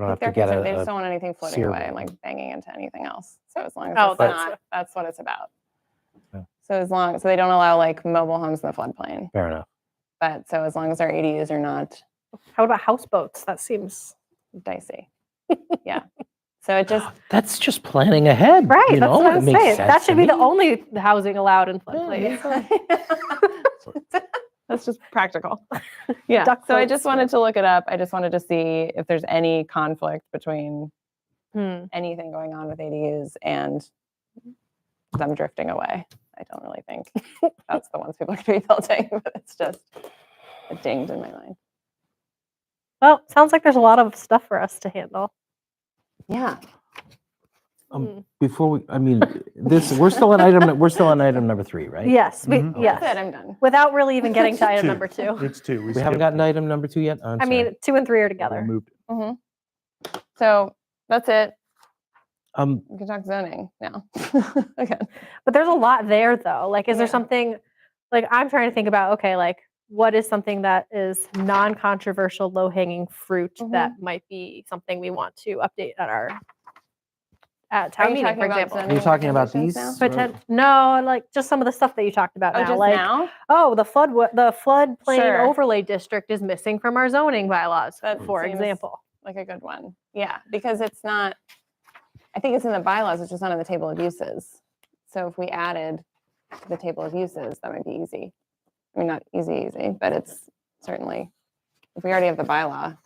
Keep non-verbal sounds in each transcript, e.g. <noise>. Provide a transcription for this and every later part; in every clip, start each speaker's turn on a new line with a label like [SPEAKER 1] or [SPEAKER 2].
[SPEAKER 1] You don't
[SPEAKER 2] Like
[SPEAKER 1] have
[SPEAKER 2] they're
[SPEAKER 1] to get
[SPEAKER 2] concerned, they
[SPEAKER 1] a,
[SPEAKER 2] just
[SPEAKER 1] a
[SPEAKER 2] don't want anything floating
[SPEAKER 1] sear
[SPEAKER 2] away and
[SPEAKER 1] bowl.
[SPEAKER 2] like banging into anything else. So as long as
[SPEAKER 3] Oh,
[SPEAKER 2] it's
[SPEAKER 3] that's
[SPEAKER 2] not,
[SPEAKER 3] what-
[SPEAKER 2] that's what it's about.
[SPEAKER 1] Yeah.
[SPEAKER 2] So as long, so they don't allow like mobile homes in the floodplain,
[SPEAKER 1] fair enough.
[SPEAKER 2] but so as long as our ADUs are not
[SPEAKER 3] How about houseboats? That seems
[SPEAKER 2] dicey. <laughs> Yeah. So it just,
[SPEAKER 1] That's just planning ahead.
[SPEAKER 3] right.
[SPEAKER 1] You
[SPEAKER 3] that's
[SPEAKER 1] know,
[SPEAKER 3] what I
[SPEAKER 1] it
[SPEAKER 3] was
[SPEAKER 1] makes
[SPEAKER 3] saying. That
[SPEAKER 1] sense
[SPEAKER 3] should
[SPEAKER 1] to
[SPEAKER 3] be the
[SPEAKER 1] me.
[SPEAKER 3] only housing allowed in <laughs> floodplains.
[SPEAKER 2] that's just practical. Yeah.
[SPEAKER 3] Duck
[SPEAKER 2] so I
[SPEAKER 3] boats.
[SPEAKER 2] just wanted to look it up. I just wanted to see if there's any conflict between
[SPEAKER 3] Hmm.
[SPEAKER 2] anything going on with ADUs and them drifting away. I don't really think <laughs> that's the ones people are going to be <laughs> building, but it's just it dinged in my mind.
[SPEAKER 3] Well, sounds like there's a lot of stuff for us to handle.
[SPEAKER 2] Yeah.
[SPEAKER 1] Um,
[SPEAKER 3] Hmm.
[SPEAKER 1] Before we, I mean, this we're still on item. nu- We're still on item number three, right? Mm-hmm.
[SPEAKER 3] Yes, we,
[SPEAKER 4] Mhm.
[SPEAKER 3] yes.
[SPEAKER 2] That's it. I'm done.
[SPEAKER 3] Without really even getting
[SPEAKER 1] <laughs>
[SPEAKER 3] to item
[SPEAKER 4] Two.
[SPEAKER 3] number two.
[SPEAKER 4] It's two.
[SPEAKER 1] We haven't
[SPEAKER 4] skipped
[SPEAKER 1] gotten
[SPEAKER 4] it.
[SPEAKER 1] item number two yet. Oh, I'm
[SPEAKER 3] I
[SPEAKER 1] sorry.
[SPEAKER 3] mean, two and three are
[SPEAKER 4] We
[SPEAKER 3] together.
[SPEAKER 4] moved it.
[SPEAKER 2] hmm So that's it.
[SPEAKER 1] um,
[SPEAKER 2] We can talk zoning now. <laughs> Again.
[SPEAKER 3] But there's a lot there though. Like, is there
[SPEAKER 2] Yeah.
[SPEAKER 3] something like I'm trying to think about, okay, like what is something that is non-controversial, low-hanging fruit that might be something we want to update at our at town
[SPEAKER 2] Are you
[SPEAKER 3] meeting,
[SPEAKER 2] talking
[SPEAKER 3] for
[SPEAKER 2] about
[SPEAKER 3] example?
[SPEAKER 2] zoning
[SPEAKER 1] You're talking about
[SPEAKER 2] regulations
[SPEAKER 1] these?
[SPEAKER 2] Now?
[SPEAKER 1] But-
[SPEAKER 3] Potent- no, like just some of the stuff that you talked about
[SPEAKER 2] Oh,
[SPEAKER 3] now.
[SPEAKER 2] just
[SPEAKER 3] like,
[SPEAKER 2] now?
[SPEAKER 3] oh, the flood wa- the floodplain
[SPEAKER 2] Sure.
[SPEAKER 3] overlay district is missing from our zoning bylaws,
[SPEAKER 2] That
[SPEAKER 3] for
[SPEAKER 2] seems-
[SPEAKER 3] example.
[SPEAKER 2] Like a good one. Yeah. Because it's not, I think it's in the bylaws, it's just not on the table of uses. So if we added the table of uses, that might be easy. I mean, not easy, easy, but it's certainly, if we already have the bylaw.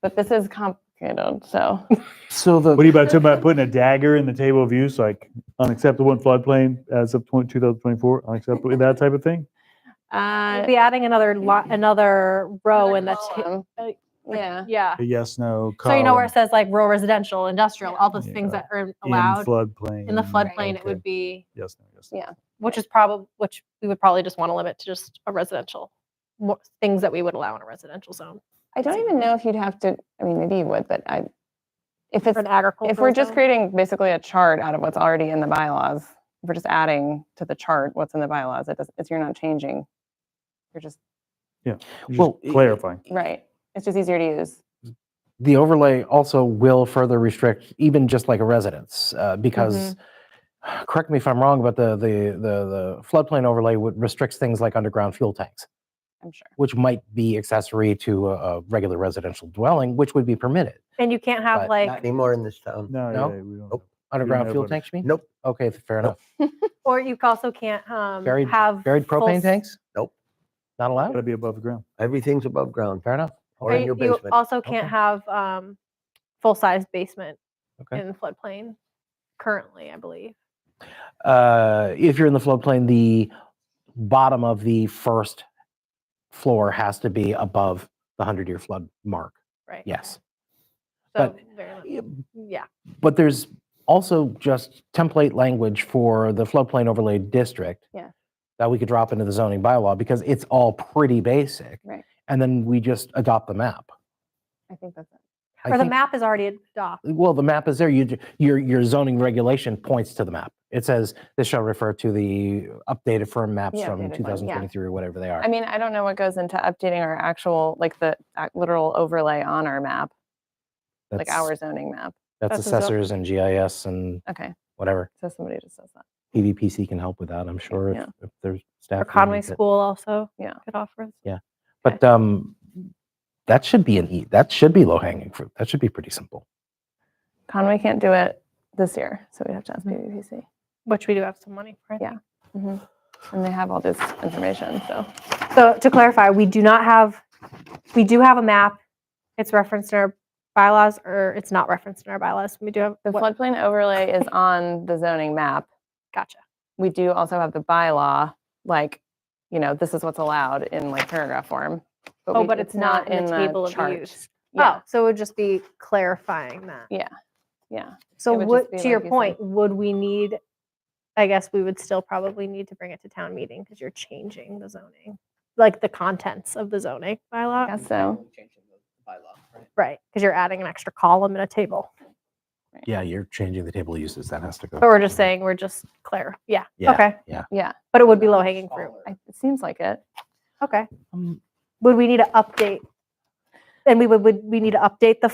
[SPEAKER 2] But this is complicated, so.
[SPEAKER 1] so the
[SPEAKER 4] What are you about talking about putting a dagger in the table of use, like unacceptable in floodplain as of 20 2024, unacceptable, that type of thing?
[SPEAKER 3] We'll
[SPEAKER 2] uh, Hmm.
[SPEAKER 3] be adding another lot, another row in the ta-
[SPEAKER 2] column.
[SPEAKER 3] uh, like-
[SPEAKER 2] Yeah.
[SPEAKER 3] yeah.
[SPEAKER 4] A yes, no.
[SPEAKER 3] So you know where it
[SPEAKER 4] column
[SPEAKER 3] says like rural residential, industrial,
[SPEAKER 2] Yeah.
[SPEAKER 3] all the
[SPEAKER 4] Yeah.
[SPEAKER 3] things that are
[SPEAKER 4] in
[SPEAKER 3] allowed
[SPEAKER 4] floodplain.
[SPEAKER 3] in the
[SPEAKER 2] Right.
[SPEAKER 3] floodplain, it
[SPEAKER 4] Okay.
[SPEAKER 3] would be,
[SPEAKER 4] Yes, no, yes.
[SPEAKER 2] Yeah.
[SPEAKER 3] which is probably, which we would probably just want to limit to just a residential, mo- things that we would allow in a residential zone.
[SPEAKER 2] I don't even know if you'd have to, I mean, maybe you would, but I, if it's
[SPEAKER 3] For an agricultural
[SPEAKER 2] If we're just
[SPEAKER 3] zone.
[SPEAKER 2] creating basically a chart out of what's already in the bylaws, if we're just adding to the chart what's in the bylaws, it does, it's, you're not changing. You're just,
[SPEAKER 4] Just
[SPEAKER 1] Well, i-
[SPEAKER 4] clarifying.
[SPEAKER 2] right, it's just easier to use.
[SPEAKER 1] the overlay also will further restrict even just like a residence uh, because
[SPEAKER 3] Mm-hmm.
[SPEAKER 1] correct me if i'm wrong but the the the, the floodplain overlay would restricts things like underground fuel tanks
[SPEAKER 2] I'm sure.
[SPEAKER 1] which might be accessory to a, a regular residential dwelling which would be permitted
[SPEAKER 3] And you can't
[SPEAKER 1] But
[SPEAKER 3] have
[SPEAKER 5] Not
[SPEAKER 3] like,
[SPEAKER 5] anymore in this town.
[SPEAKER 4] No,
[SPEAKER 1] No?
[SPEAKER 4] yeah, we don't.
[SPEAKER 5] Nope.
[SPEAKER 1] underground
[SPEAKER 4] know
[SPEAKER 1] fuel
[SPEAKER 4] about it.
[SPEAKER 1] tanks you mean
[SPEAKER 5] Nope.
[SPEAKER 1] okay th- fair
[SPEAKER 5] Nope.
[SPEAKER 1] enough
[SPEAKER 3] or you also can't um,
[SPEAKER 1] Buried-
[SPEAKER 3] have.
[SPEAKER 1] buried
[SPEAKER 3] full
[SPEAKER 1] propane
[SPEAKER 3] s-
[SPEAKER 1] tanks
[SPEAKER 5] Nope.
[SPEAKER 1] not
[SPEAKER 4] Got to
[SPEAKER 1] allowed
[SPEAKER 4] be above the ground.
[SPEAKER 5] Everything's above ground
[SPEAKER 1] fair enough
[SPEAKER 5] or
[SPEAKER 3] or
[SPEAKER 5] in
[SPEAKER 3] you-
[SPEAKER 5] your
[SPEAKER 3] you
[SPEAKER 5] basement.
[SPEAKER 3] Also can't
[SPEAKER 1] Okay.
[SPEAKER 3] have um, full-size basement
[SPEAKER 1] Okay.
[SPEAKER 3] in the floodplain currently, I believe.
[SPEAKER 1] uh, if you're in the floodplain the bottom of the first floor has to be above the 100 year flood mark
[SPEAKER 3] Right.
[SPEAKER 1] yes
[SPEAKER 3] So
[SPEAKER 1] but-
[SPEAKER 3] very much.
[SPEAKER 1] Yeah,
[SPEAKER 3] Yeah.
[SPEAKER 1] But there's also just template language for the floodplain overlay district.
[SPEAKER 2] Yeah.
[SPEAKER 1] That we could drop into the zoning bylaw because it's all pretty basic.
[SPEAKER 2] Right.
[SPEAKER 1] And then we just adopt the map.
[SPEAKER 2] I think that's it.
[SPEAKER 1] I
[SPEAKER 3] Or the
[SPEAKER 1] think-
[SPEAKER 3] map is already adopted.
[SPEAKER 1] Well, the map is there. You, ju- your, your zoning regulation points to the map. It says this shall refer to the updated firm maps
[SPEAKER 2] Yeah, updated
[SPEAKER 1] from
[SPEAKER 2] one, yeah.
[SPEAKER 1] 2023 or whatever they are.
[SPEAKER 2] I mean, I don't know what goes into updating our actual, like the ac- literal overlay on our map, like
[SPEAKER 1] That's-
[SPEAKER 2] our zoning map.
[SPEAKER 1] That's
[SPEAKER 3] that's a zo-
[SPEAKER 1] assessors and GIS and
[SPEAKER 2] Okay,
[SPEAKER 1] whatever.
[SPEAKER 2] so somebody just says that.
[SPEAKER 1] PVPC can help with that, I'm sure,
[SPEAKER 2] Yeah.
[SPEAKER 1] if if there's staff.
[SPEAKER 3] Or
[SPEAKER 1] who
[SPEAKER 3] Conway
[SPEAKER 1] needs it.
[SPEAKER 3] School also
[SPEAKER 2] Yeah.
[SPEAKER 3] could offer. Okay.
[SPEAKER 1] But um, that should be an e. That should be low hanging fruit. That should be pretty simple.
[SPEAKER 2] Conway can't do it this year, so we have to ask PVPC.
[SPEAKER 3] which we do have some money for. I
[SPEAKER 2] Yeah.
[SPEAKER 3] think.
[SPEAKER 2] Mhm. And they have all this information, so.
[SPEAKER 3] So to clarify, we do not have, we do have a map. It's referenced in our bylaws, or it's not referenced in our bylaws. We do have
[SPEAKER 2] The
[SPEAKER 3] what-
[SPEAKER 2] floodplain overlay is on the zoning map.
[SPEAKER 3] Gotcha.
[SPEAKER 2] we do also have the bylaw, like, you know, this is what's allowed in like paragraph form.
[SPEAKER 3] Oh,
[SPEAKER 2] we-
[SPEAKER 3] but it's not in the table of
[SPEAKER 2] chart.
[SPEAKER 3] use.
[SPEAKER 2] Yeah,
[SPEAKER 3] Oh, so it would just be clarifying that.
[SPEAKER 2] yeah.
[SPEAKER 3] So
[SPEAKER 2] It would
[SPEAKER 3] would,
[SPEAKER 2] just be
[SPEAKER 3] to your
[SPEAKER 2] like you said.
[SPEAKER 3] point, would we need? I guess we would still probably need to bring it to town meeting because you're changing the zoning, like the contents of the zoning bylaw,
[SPEAKER 2] I guess so.
[SPEAKER 3] right? Because you're adding an extra column and a table.
[SPEAKER 1] Yeah, you're changing the table of uses. That has to go.
[SPEAKER 3] But we're just saying we're just clear. Yeah.
[SPEAKER 1] Yeah,
[SPEAKER 3] Okay.
[SPEAKER 1] yeah.
[SPEAKER 2] Yeah.
[SPEAKER 3] But it would be low hanging fruit.
[SPEAKER 2] I- It seems like it.
[SPEAKER 3] Okay.
[SPEAKER 1] Um,
[SPEAKER 3] Would we need to update? And we would, would we need to update the